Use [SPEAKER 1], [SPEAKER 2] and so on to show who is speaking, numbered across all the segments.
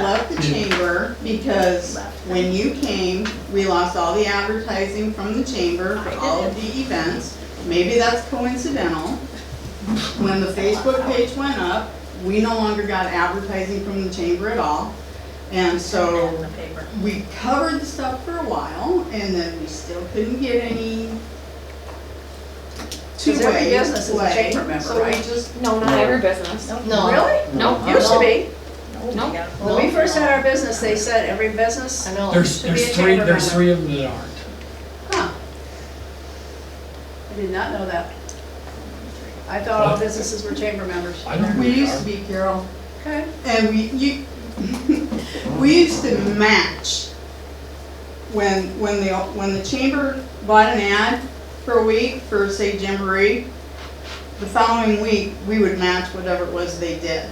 [SPEAKER 1] like the chamber because when you came, we lost all the advertising from the chamber for all of the events. Maybe that's coincidental. When the Facebook page went up, we no longer got advertising from the chamber at all. And
[SPEAKER 2] In
[SPEAKER 1] so
[SPEAKER 2] the paper.
[SPEAKER 1] we covered the stuff for a while and then we still couldn't get any
[SPEAKER 2] every
[SPEAKER 1] two-way play.
[SPEAKER 2] business is a chamber member,
[SPEAKER 1] So we
[SPEAKER 2] right?
[SPEAKER 1] just,
[SPEAKER 3] No, not every business.
[SPEAKER 4] No.
[SPEAKER 2] Really?
[SPEAKER 3] No.
[SPEAKER 2] Used to be.
[SPEAKER 3] No.
[SPEAKER 2] When we first had our business, they said every
[SPEAKER 4] I
[SPEAKER 2] business,
[SPEAKER 4] know.
[SPEAKER 5] There's,
[SPEAKER 2] Should be
[SPEAKER 5] there's
[SPEAKER 2] a
[SPEAKER 5] three,
[SPEAKER 2] chamber
[SPEAKER 5] there's
[SPEAKER 2] member.
[SPEAKER 5] three of them that aren't.
[SPEAKER 1] huh,
[SPEAKER 2] I did not know that. I thought all businesses were chamber members.
[SPEAKER 5] I don't.
[SPEAKER 1] we used to be Carol.
[SPEAKER 2] Okay.
[SPEAKER 1] And Uh, we, you, we used to match. When, when the, when the chamber bought an ad for a week for, say, Jamboree, the following week, we would match whatever it was they did.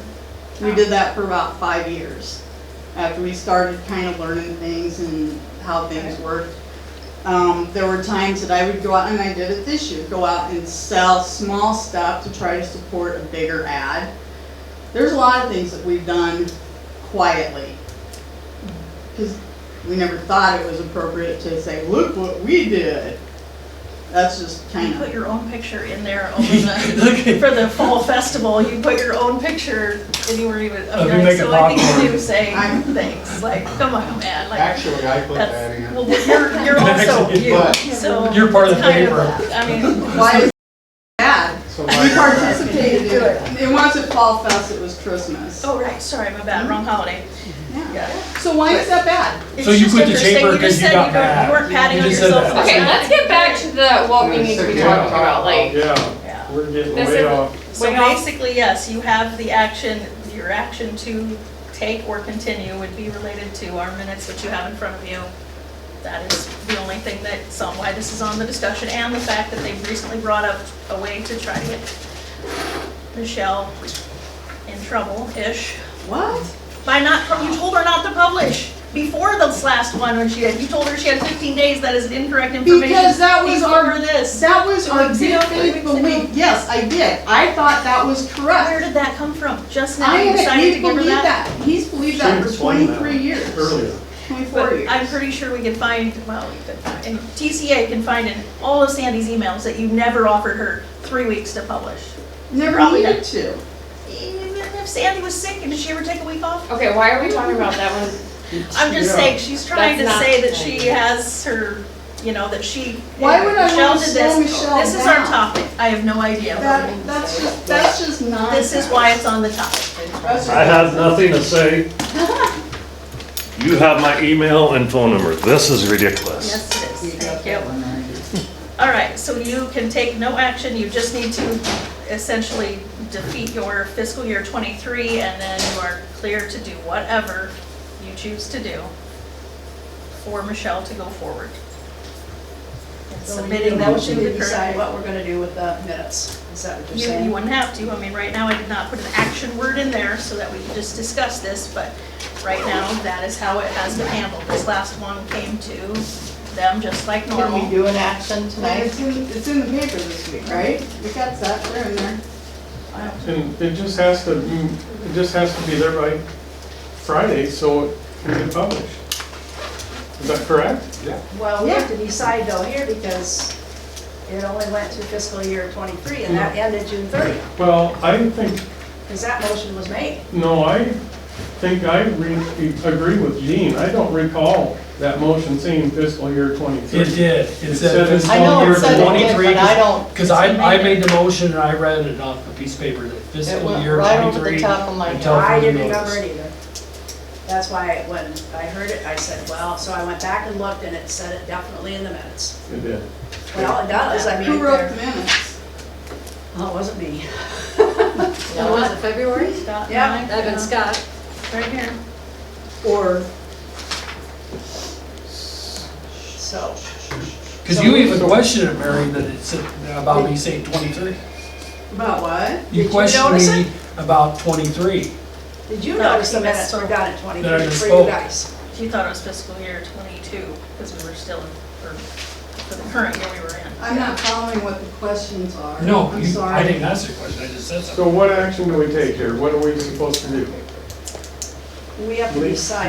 [SPEAKER 1] We did that for about five years, after we started kind of learning things and how things worked. Um, there were times that I would go out, and I did it this year, go out and sell small stuff to try to support a bigger ad. There's a lot of things that we've done quietly. Because we never thought it was appropriate to say, look what we did. That's just
[SPEAKER 2] You
[SPEAKER 1] kind
[SPEAKER 2] put
[SPEAKER 1] of,
[SPEAKER 2] your own picture in there over the, for the fall festival, you put your own picture anywhere you would.
[SPEAKER 5] Oh, you make it
[SPEAKER 2] So I think you
[SPEAKER 5] popcorn.
[SPEAKER 2] do say
[SPEAKER 1] I'm-
[SPEAKER 2] things, like, come on, man, like,
[SPEAKER 6] Actually, I put that
[SPEAKER 2] that's,
[SPEAKER 6] in,
[SPEAKER 2] well, you're, you're also
[SPEAKER 5] Actually,
[SPEAKER 2] you,
[SPEAKER 6] but,
[SPEAKER 2] so.
[SPEAKER 5] You're part of
[SPEAKER 2] it's
[SPEAKER 5] the
[SPEAKER 2] kind
[SPEAKER 5] paper.
[SPEAKER 2] I mean,
[SPEAKER 1] why is that?
[SPEAKER 6] so
[SPEAKER 1] We
[SPEAKER 6] like,
[SPEAKER 1] participated in it. And once it Fall Fest, it was Christmas.
[SPEAKER 2] oh, right, sorry, my bad, wrong holiday.
[SPEAKER 1] Yeah.
[SPEAKER 2] Yeah.
[SPEAKER 1] So why is that bad?
[SPEAKER 2] It's
[SPEAKER 5] So you
[SPEAKER 2] just
[SPEAKER 5] quit the
[SPEAKER 2] interesting.
[SPEAKER 5] chamber
[SPEAKER 2] You just
[SPEAKER 5] 'cause you
[SPEAKER 2] said
[SPEAKER 5] got
[SPEAKER 2] don't-
[SPEAKER 5] mad.
[SPEAKER 2] You weren't patting
[SPEAKER 5] You
[SPEAKER 2] on
[SPEAKER 5] just said
[SPEAKER 2] yourself.
[SPEAKER 5] that.
[SPEAKER 3] Okay, let's get back to the, what we need to be
[SPEAKER 6] Yeah,
[SPEAKER 3] talking about, like,
[SPEAKER 6] Yeah,
[SPEAKER 2] Yeah.
[SPEAKER 6] we're getting
[SPEAKER 3] This
[SPEAKER 6] way
[SPEAKER 3] is-
[SPEAKER 6] off.
[SPEAKER 2] So
[SPEAKER 3] Wait, I'll-
[SPEAKER 2] basically, yes, you have the action, your action to take or continue would be related to our minutes, which you have in front of you. That is the only thing that's on why this is on the discussion, and the fact that they've recently brought up a way to try to get Michelle in trouble-ish
[SPEAKER 1] What?
[SPEAKER 2] by not, you told her not to publish before this last one when she had, you told her she had 15 days, that is incorrect information.
[SPEAKER 1] Because that was our,
[SPEAKER 2] Before this.
[SPEAKER 1] that was
[SPEAKER 2] Two
[SPEAKER 1] our
[SPEAKER 2] weeks
[SPEAKER 1] good
[SPEAKER 2] ago, three
[SPEAKER 1] faith
[SPEAKER 2] weeks ago.
[SPEAKER 1] belief. Yes, I did. I thought that was
[SPEAKER 2] Where
[SPEAKER 1] correct.
[SPEAKER 2] did that come from? Just now
[SPEAKER 1] I
[SPEAKER 2] you
[SPEAKER 1] haven't,
[SPEAKER 2] decided to
[SPEAKER 1] he's
[SPEAKER 2] give her
[SPEAKER 1] believed
[SPEAKER 2] that?
[SPEAKER 1] that. He's believed that for
[SPEAKER 6] Should've explained that
[SPEAKER 1] twenty-three years,
[SPEAKER 6] Earlier.
[SPEAKER 1] twenty-four
[SPEAKER 2] But
[SPEAKER 1] years.
[SPEAKER 2] I'm pretty sure we can find, well, we could find, and TCA can find in all of Sandy's emails that you never offered her three weeks to publish.
[SPEAKER 1] Never
[SPEAKER 2] probably
[SPEAKER 1] needed to.
[SPEAKER 2] Even if Sandy was sick and did she ever take a week off?
[SPEAKER 3] okay, why are we talking about that one?
[SPEAKER 2] I'm just
[SPEAKER 6] Yeah.
[SPEAKER 2] saying, she's trying to
[SPEAKER 3] That's not-
[SPEAKER 2] say that she has her, you know, that she.
[SPEAKER 1] Why would I wanna
[SPEAKER 2] Michelle did
[SPEAKER 1] slow
[SPEAKER 2] this.
[SPEAKER 1] Michelle
[SPEAKER 2] This is our
[SPEAKER 1] down?
[SPEAKER 2] topic. I have no idea.
[SPEAKER 1] That, that's just, that's just nonsense.
[SPEAKER 2] This is why it's on the topic.
[SPEAKER 1] That's just
[SPEAKER 7] I have
[SPEAKER 1] nonsense.
[SPEAKER 7] nothing to say. You have my email and phone number. This is ridiculous.
[SPEAKER 2] Yes, it is. Thank you. All right, so you can take no action, you just need to essentially defeat your fiscal year '23, and then you are clear to do whatever you choose to do for Michelle to go forward. And Submitting them to the current.
[SPEAKER 4] what we're gonna do with the minutes, is that what
[SPEAKER 2] You you wouldn't have to, I mean, right now, I did not put an action word in there so that we could just discuss this, but right now, that is how it has been handled. This last one came to them just like normal.
[SPEAKER 4] Can we do an action
[SPEAKER 1] And
[SPEAKER 4] tonight?
[SPEAKER 1] it's in, it's in the paper this week, right? We got that, they're in there.
[SPEAKER 6] And it just has to, mm, it just has to be there by Friday, so it can be published. Is that correct? Yeah.
[SPEAKER 4] Well, we have to decide though here because it only went to fiscal year twenty-three and that ended June thirtieth,
[SPEAKER 6] Well, I think,
[SPEAKER 4] because that motion was made.
[SPEAKER 6] no, I think I re- agree with Jean. I don't recall that motion saying fiscal year twenty-three.
[SPEAKER 5] It did. It said
[SPEAKER 6] said it's
[SPEAKER 5] fiscal
[SPEAKER 4] I know
[SPEAKER 5] year
[SPEAKER 4] it said it did,
[SPEAKER 5] twenty-three.
[SPEAKER 4] but I don't,
[SPEAKER 5] Because I, I made the motion and I read it off a piece of paper that
[SPEAKER 4] it
[SPEAKER 5] fiscal
[SPEAKER 4] went
[SPEAKER 5] year
[SPEAKER 4] right over the
[SPEAKER 5] twenty-three.
[SPEAKER 4] top of my head.
[SPEAKER 5] until
[SPEAKER 4] I didn't
[SPEAKER 5] further
[SPEAKER 4] remember
[SPEAKER 5] notice.
[SPEAKER 4] it either. That's why when I heard it, I said, well, so I went back and looked and it said it definitely in the minutes.
[SPEAKER 6] It did.
[SPEAKER 4] Well, it does, I mean.
[SPEAKER 1] Who wrote the
[SPEAKER 4] they're-
[SPEAKER 1] minutes?
[SPEAKER 4] Oh, it wasn't me.
[SPEAKER 8] That was it February?
[SPEAKER 2] Scott and
[SPEAKER 4] Yeah,
[SPEAKER 2] I,
[SPEAKER 8] That'd been
[SPEAKER 2] uh,
[SPEAKER 8] Scott.
[SPEAKER 2] Right here.
[SPEAKER 1] Or
[SPEAKER 4] So,
[SPEAKER 5] Because you even questioned it, Mary, that it said about me saying twenty-three.
[SPEAKER 1] about what?
[SPEAKER 5] You
[SPEAKER 4] you
[SPEAKER 5] questioned
[SPEAKER 4] notice
[SPEAKER 5] me about twenty-three.
[SPEAKER 4] did you
[SPEAKER 2] No,
[SPEAKER 4] notice the
[SPEAKER 2] he missed
[SPEAKER 4] minutes
[SPEAKER 2] some.
[SPEAKER 4] were done at
[SPEAKER 5] That I
[SPEAKER 4] 23 for you
[SPEAKER 5] misspoke.
[SPEAKER 4] guys?
[SPEAKER 2] She thought it was fiscal year '22, because we were still in, or for the current year we were in.
[SPEAKER 1] I'm not following what the questions are.
[SPEAKER 5] No,
[SPEAKER 1] I'm
[SPEAKER 5] you- I
[SPEAKER 1] sorry.
[SPEAKER 5] didn't ask the question. I just said something.
[SPEAKER 6] So what action do we take here? What are we supposed to do?
[SPEAKER 4] we have to
[SPEAKER 6] Please.
[SPEAKER 4] decide